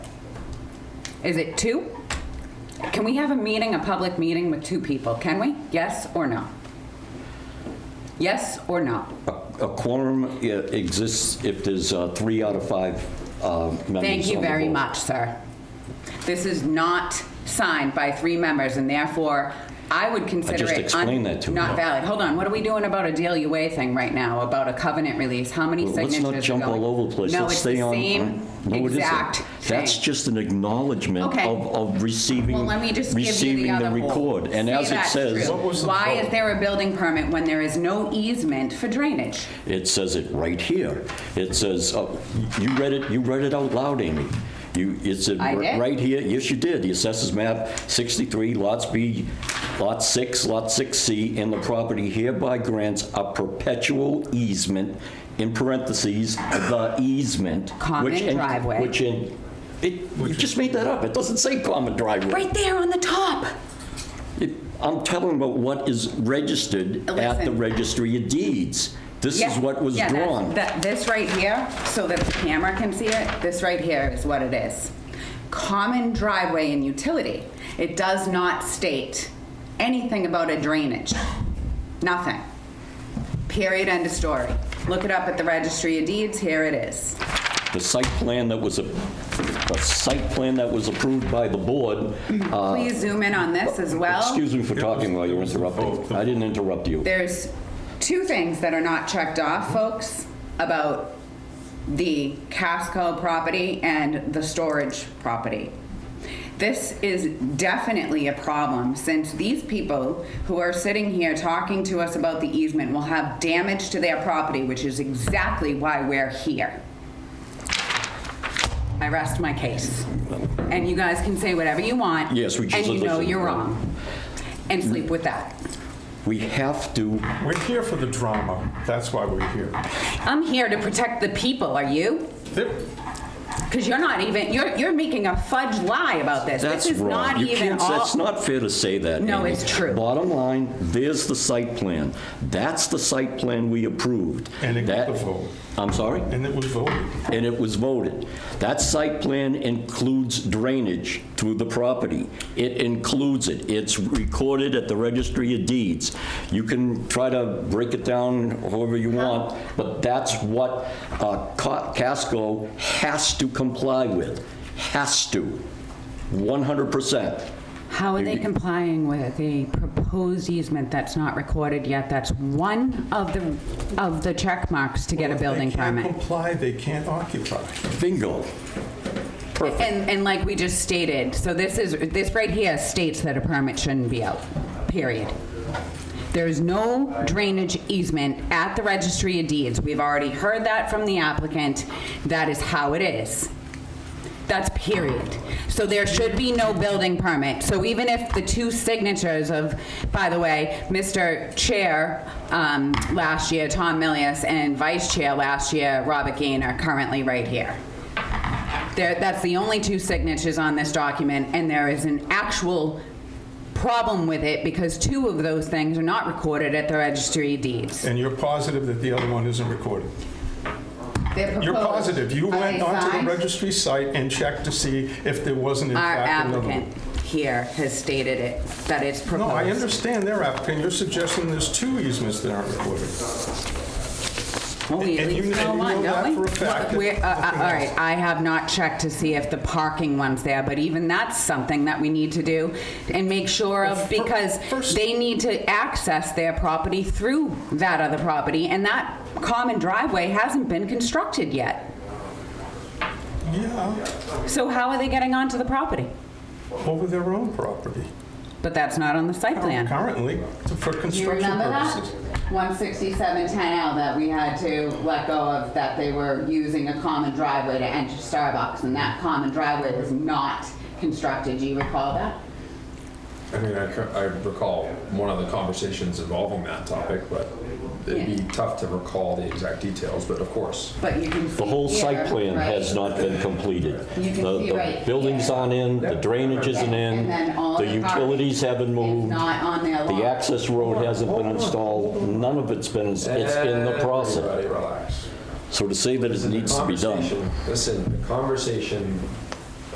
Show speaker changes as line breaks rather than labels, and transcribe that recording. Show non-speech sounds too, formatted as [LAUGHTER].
Is it two? Can we have a meeting, a public meeting with two people? Can we? Yes or no? Yes or no?
A a quorum i- exists if there's uh, three out of five uh, members on the
Thank you very
board.
much, sir. This is not signed by three members, and therefore, I would consider
just
it... un-
explained that to
Not
you.
valid. Hold on, what are we doing about a DLUA thing right now, about a covenant release? How many
Well, Let's
signatures are going?
not jump all over the place.
No,
Let's
it's the
stay on.
same
No, it isn't.
exact
That's
thing.
just an acknowledgement
Okay.
of, of receiving,
Well, let me just give you the
receiving
other
the
hole.
record. And
See,
as it
that's
says,
true.
was the
Why
vote?
is there a building permit when there is no easement for drainage?
it says it right here. It says, uh, you read it, you read it out loud, Amy. You, it's a-
I did?
right here, yes, you did. The assessors map 63, lots B, lot 6, lot 6C, and the property hereby grants a perpetual easement, in parentheses, the easement.
Common
which in-
driveway.
Which in, it, you just made that up. It doesn't say common driveway.
Right there on the top.
It- I'm telling about what is registered at the
Listen.
registry of deeds. This is
Yeah,
what was
yeah, that-
drawn.
That, this right here, so that the camera can see it, this right here is what it is. Common driveway and utility. It does not state anything about a drainage. Nothing. Period, end of story. Look it up at the registry of deeds, here it is.
The site plan that was, a the site plan that was approved by the board, uh,
Please zoom in on this as well.
excuse me for talking while you're
Oh,
interrupting. I didn't interrupt you.
There's two things that are not checked off, folks, about the Casco property and the storage property. This is definitely a problem since these people who are sitting here talking to us about the easement will have damage to their property, which is exactly why we're here. I rest my case. And you guys can say whatever you want.
Yes, we just
And you know
listen.
you're wrong. And
Mm-hmm.
sleep with that.
We have to,
We're here for the drama. That's why we're here.
I'm here to protect the people, are you?
There-
Because you're not even, you're, you're making a fudge lie about this.
that's
This is
wrong.
not
You
even
can't,
all.
that's not fair to say that.
No,
Amy.
it's true.
Bottom line, there's the site plan. That's the site plan we approved.
And it
That-
got the vote.
I'm sorry?
And it was voted.
and it was voted. That site plan includes drainage to the property. It includes it. It's recorded at the registry of deeds. You can try to break it down however you
Uh-huh.
want, but that's what uh, Ca- Casco has to comply with, has to, 100%.
How are they complying with a proposed easement that's not recorded yet? That's one of the, of the check marks to get a building
They
permit.
[LAUGHS]
can't comply, they can't occupy.
Bingo. Perfect.
And, and like we just stated, so this is, this right here states that a permit shouldn't be out, period. There is no drainage easement at the registry of deeds. We've already heard that from the applicant. That is how it is. That's period. So there should be no building permit. So even if the two signatures of, by the way, Mr. Chair um, last year, Tom Millius, and Vice Chair last year, Robert Gain, are currently right here. There, that's the only two signatures on this document, and there is an actual problem with it because two of those things are not recorded at the registry of deeds.
And you're positive that the other one isn't recorded?
They're
You're
proposed.
positive. You
Are
went
they
onto the
signed?
registry site and checked to see if there wasn't in
Our
fact another one.
applicant here has stated it, that it's proposed.
No, I understand their applicant. You're suggesting there's two easements that aren't recorded.
Well, we at
and you-
least know
and you
one,
know that
don't we?
for a fact,
Well, we're- uh, uh,
nothing
All
else.
right, I have not checked to see if the parking one's there, but even that's something that we need to do and make sure
Well,
of,
fir-
because
first-
they need to access their property through that other property, and that common driveway hasn't been constructed yet.
Yeah,
So how are they getting onto the property?
over their own property.
But that's not on the site plan.
Currently, for
Do you
construction
remember that?
purposes.
16710L that we had to let go of, that they were using a common driveway to enter Starbucks, and that common driveway was not constructed. Do you recall that?
I mean, I, cou- I recall one of the conversations involving that topic, but it'd be
Yeah.
tough to recall the exact details, but of course.
But you can see
The whole
here,
site plan
right?
has not been completed.
You can
The-
see right
The buildings
here.
aren't in, the drainage isn't in,
And then all
the
the parking
utilities haven't
It's
moved,
not on their
the
lot.
access road hasn't been installed, none of it's been, it's in the process.
Everybody relax.
So to say that it needs to be done,
Listen, the conversation